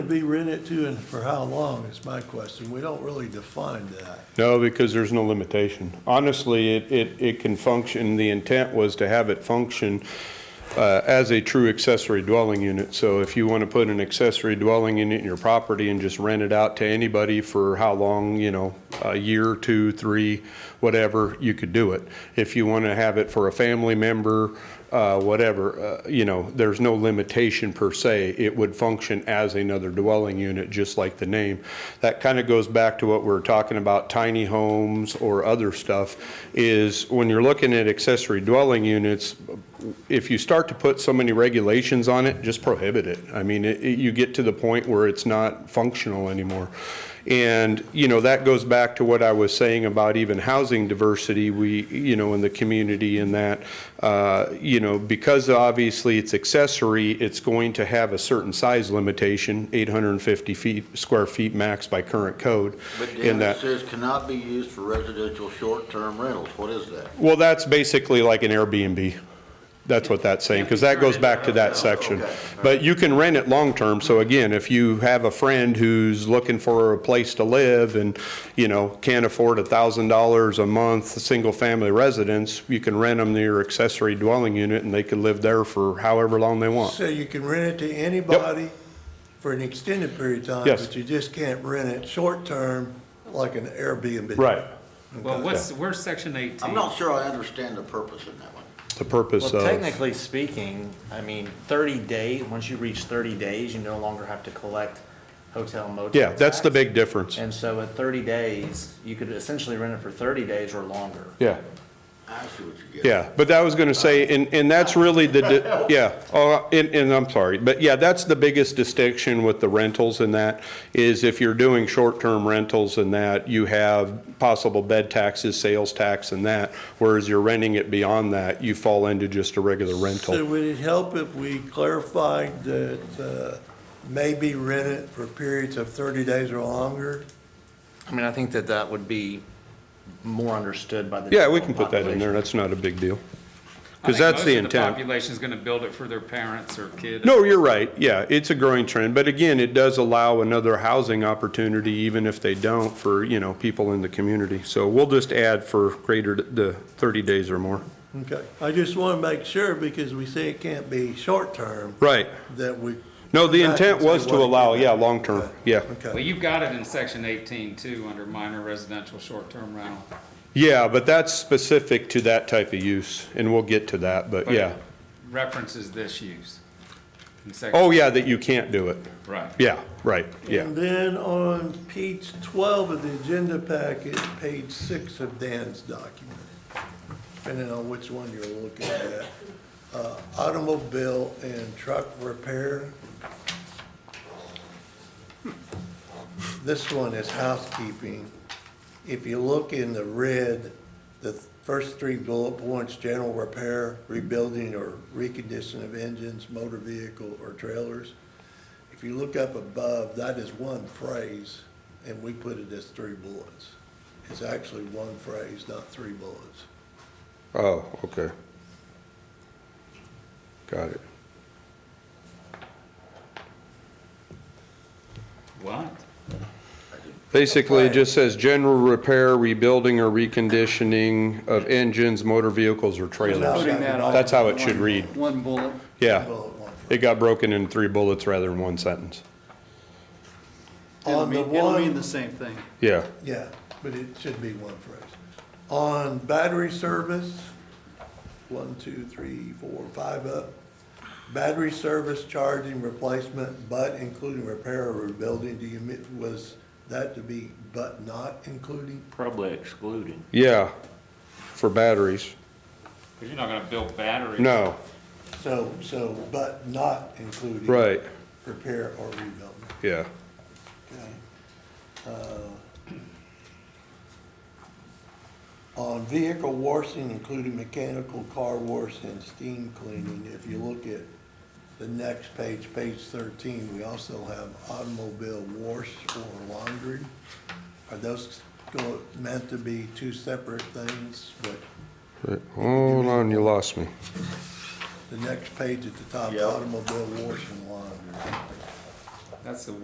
be rented to and for how long is my question. We don't really define that. No, because there's no limitation. Honestly, it, it, it can function, the intent was to have it function uh, as a true accessory dwelling unit. So if you want to put an accessory dwelling unit in your property and just rent it out to anybody for how long, you know, a year, two, three, whatever, you could do it. If you want to have it for a family member, uh, whatever, uh, you know, there's no limitation per se. It would function as another dwelling unit, just like the name. That kind of goes back to what we we're talking about tiny homes or other stuff, is when you're looking at accessory dwelling units, if you start to put so many regulations on it, just prohibit it. I mean, it, it- you get to the point where it's not functional anymore. And, you know, that goes back to what I was saying about even housing diversity, we, you know, in the community and that, uh, you know, because obviously it's accessory, it's going to have a certain size limitation, 850 feet, square feet max by current code. But in down that. it says cannot be used for residential short-term rentals. What is that? Well, that's basically like an Airbnb. That's what that's saying, because that goes back to that section. Okay. But you can rent it long-term, so again, if you have a friend who's looking for a place to live and, you know, can't afford a thousand dollars a month, a single-family residence, you can rent them their accessory dwelling unit and they could live there for however long they want. So you can rent it to anybody for an extended period of time. Yes. But you just can't rent it short-term like an Airbnb. Well, what's, where's section 18? I'm not sure I understand the purpose in that one. The purpose Well, of, technically speaking, I mean, 30 day, once you reach 30 days, you no longer have to collect hotel motel. yeah, that's the tax. big difference. And so at 30 days, you could essentially rent it for 30 days or longer. Yeah. I see what you're getting. Yeah, but that was going to say, and, and that's really the, di- yeah, oh, and, and I'm sorry, but yeah, that's the biggest distinction with the rentals and that, is if you're doing short-term rentals and that, you have possible bed taxes, sales tax and that, whereas you're renting it beyond that, you fall into just a regular So rental. would it help if we clarified that uh, maybe rent it for periods of 30 days or longer? I mean, I think that that would be more understood by the. Yeah, we general can put that in there, population. that's not a big deal. I think Because that's the most of intent. population's going to build it for their parents or kids. No, you're right, yeah, it's a growing trend, but again, it does allow another housing opportunity, even if they don't, for, you know, people in the community. So we'll just add for greater, th- the 30 days or more. Okay. I just want to make sure because we say it can't be short-term Right, that we. no, the intent Back and was say to what it allow, can yeah, be. long-term, yeah. Well, Okay. you've got it in section 18 too, under minor residential short-term rental. Yeah, but that's specific to that type of use, and we'll get to that, but But it yeah. References this use. in section- Oh, yeah, that you can't do it, Right. yeah, right, yeah. And then on page 12 of the agenda packet, page six of Dan's document, depending on which one you're looking at, uh, automobile and truck repair. This one is housekeeping. If you look in the red, the first three bullet points, general repair, rebuilding or recondition of engines, motor vehicle, or trailers. If you look up above, that is one phrase, and we put it as three bullets. It's actually one phrase, not three bullets. Oh, okay. Got it. What? Basically, it just says general repair, rebuilding, or reconditioning of engines, motor vehicles, or trailers. Putting that all That's how it should read. One bullet. Yeah. Bullet one phrase. It got broken in three bullets rather than one sentence. It'll On mean, the it'll mean the one, same thing. Yeah. yeah, but it should be one phrase. On battery service, one, two, three, four, five up. Battery service charging replacement, but including repair or rebuilding, do you, mi- was that to be but not including? Probably excluded. Yeah. For batteries. Because you're not going to build batteries. No, So, so, but not including. right. Repair or rebuilding. Yeah. Okay. Uh, On vehicle washing, including mechanical car wash and steam cleaning, if you look at the next page, page thirteen, we also have automobile wash or laundry. Are those go- meant to be two separate things, but Right. Hold on, you lost me. the next page at the top, Yeah. automobile wash and laundry. That's the